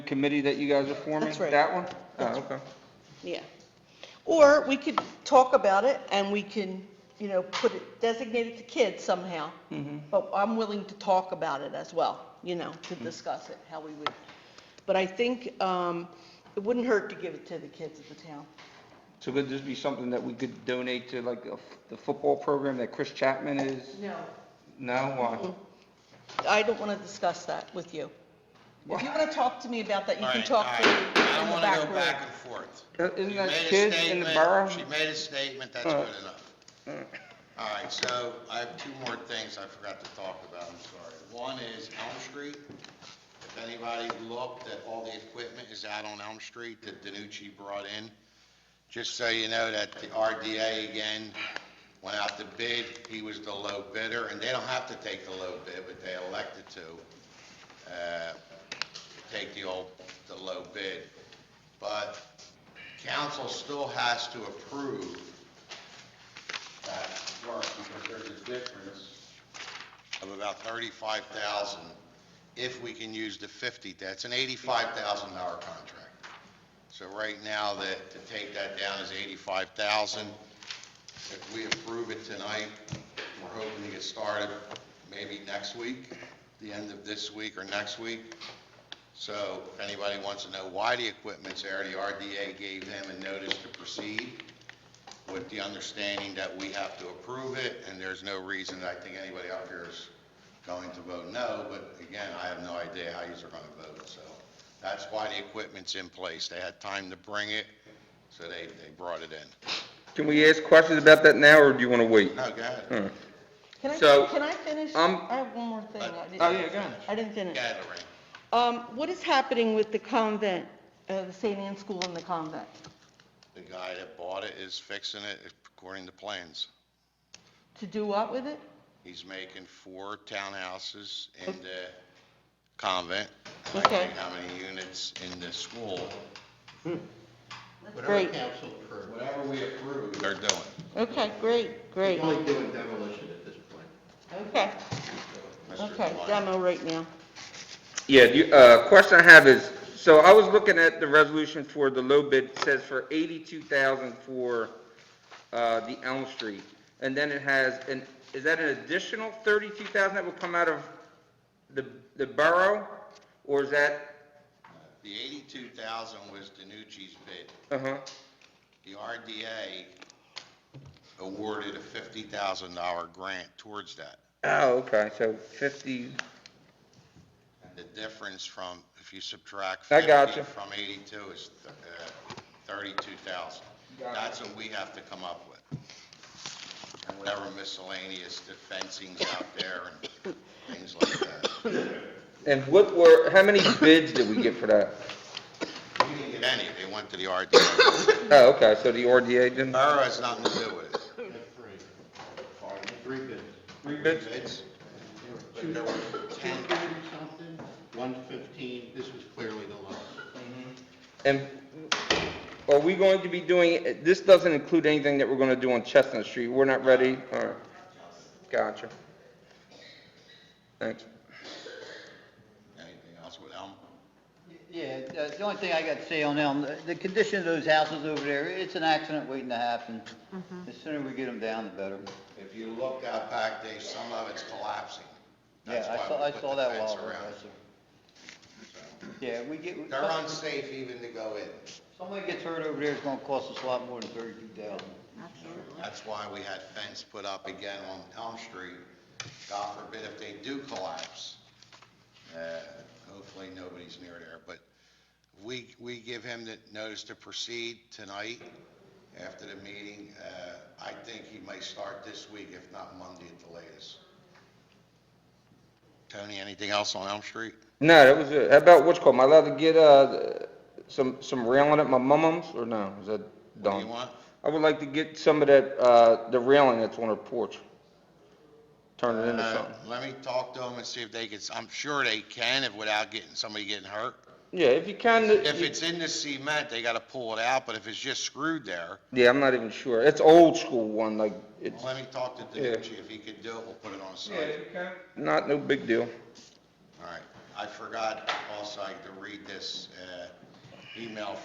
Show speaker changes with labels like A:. A: committee that you guys are forming?
B: That's right.
A: That one? Oh, okay.
B: Yeah. Or we could talk about it and we can, you know, put it, designate it to kids somehow.
C: Mm-hmm.
B: But I'm willing to talk about it as well, you know, to
C: Mm-hmm.
B: discuss it, how we would. But I think um, it wouldn't hurt to give it to the kids of the town.
A: So could this be something that we could donate to like a f- the football program that Chris Chapman is?
B: No.
A: No,
B: Mm-hmm.
A: why?
B: I don't want to discuss that with you. If you want to talk to me about that, you
C: All
B: can
C: right,
B: talk
C: all
B: to
C: right.
B: me
C: I
B: in
C: don't
B: the
C: want to
B: back
C: go back
B: room.
C: and forth.
A: Uh, Isn't
C: You
A: that
C: made a
A: kids in the
C: statement.
A: borough?
C: She made a statement, that's
A: Uh.
C: good enough. All right, so I have two more things I forgot to talk about, I'm sorry. One is Elm Street. If anybody looked at all the equipment is out on Elm Street that Danucci brought in. Just so you know that the RDA again went out to bid, he was the low bidder, and they don't have to take the low bid, but they elected to. Uh, take the old, the low bid. But council still has to approve that work because there's a difference of about thirty-five thousand if we can use the fifty, that's an eighty-five thousand dollar contract. So right now, that, to take that down is eighty-five thousand. If we approve it tonight, we're hoping to get started maybe next week, the end of this week or next week. So if anybody wants to know why the equipment's there, the RDA gave them a notice to proceed with the understanding that we have to approve it, and there's no reason, that I think anybody up here is going to vote no, but again, I have no idea how yous are going to vote, so that's why the equipment's in place. They had time to bring it, so they, they brought it in.
A: Can we ask questions about that now, or do you want to wait?
C: No, go ahead.
A: Hmm.
B: Can I,
A: So,
B: can I finish?
A: um,
B: I have one more thing. I didn't-
A: Oh, yeah, go ahead.
B: I didn't finish.
C: Go ahead, Lorraine.
B: Um, what is happening with the convent, uh, the St. Anne's School and the convent?
C: The guy that bought it is fixing it according to plans.
B: To do what with it?
C: He's making four townhouses in the convent. and I
B: Okay.
C: think How many units in the school? Whatever
B: Great.
C: council approves. Whatever we approve. They're doing.
B: Okay, great, great.
D: He's only doing demolition at this point.
B: Okay,
C: Mr.
B: okay,
C: Devine.
B: demo right now.
A: Yeah, the, uh, question I have is, so I was looking at the resolution for the low bid, it says for eighty-two thousand for, uh, the Elm Street. And then it has, an is that an additional thirty-two thousand that will come out of the, the borough? Or is that,
C: The eighty-two thousand was Danucci's bid.
A: uh-huh,
C: The RDA awarded a fifty thousand dollar grant towards that.
A: oh, okay, so fifty,
C: And the difference from, if you subtract
A: I got
C: fifty
A: you.
C: from eighty-two is uh, thirty-two thousand. That's what we have to come up with. And whatever miscellaneous, the fencing's out there and things like that.
A: and what were, how many bids did we get for that?
C: We didn't get any, they went to the RDA.
A: Oh, okay, so the RDA didn't,
C: Borough has nothing to do with it.
D: Three bids.
A: three bids?
C: It's-
D: Two two fifty or something, one fifteen, this was clearly the lowest.
A: And are we going to be doing, this doesn't include anything that we're going to do on Chestnut Street? We're not ready? All right. Gotcha. Thanks.
C: Anything else with Elm?
E: Yeah, uh, the only thing I got to say on Elm, the- the condition of those houses over there, it's an accident waiting to happen.
B: Mm-hmm.
E: The sooner we get them down, the better.
C: If you look out back, Dave, some of it's collapsing.
E: Yeah,
C: That's
E: I
C: why
E: saw,
C: we
E: I
C: put
E: saw
C: the
E: that
C: fence
E: while. ago,
C: around.
E: yes, sir. Yeah, we get,
C: They're unsafe even to go in.
E: somebody gets hurt over there, it's gonna cost us a lot more than thirty-two thousand.
C: That's why we had fence put up again on Elm Street. God forbid if they do collapse. Uh, Hopefully, nobody's near there, but we, we give him the notice to proceed tonight after the meeting. Uh, I think he may start this week, if not Monday at the latest. Tony, anything else on Elm Street?
A: No, that was it. How about what's called, am I allowed to get, uh, some, some railing at my mum-mum's or no? Is that
C: What do you
A: done?
C: want?
A: I would like to get some of that, uh, the railing that's on her porch. Turn it into
C: Uh,
A: something.
C: Let me talk to them and see if they can, I'm sure they can if without getting, somebody getting hurt.
A: Yeah, if you can.
C: If it's in the cement, they gotta pull it out, but if it's just screwed there,
A: Yeah, I'm not even sure. It's old school one, like, it's
C: let me talk to
A: Yeah.
C: Danucci, if he can do it, we'll put it on site.
A: not no big deal.
C: All right, I forgot also I had to read this, uh, email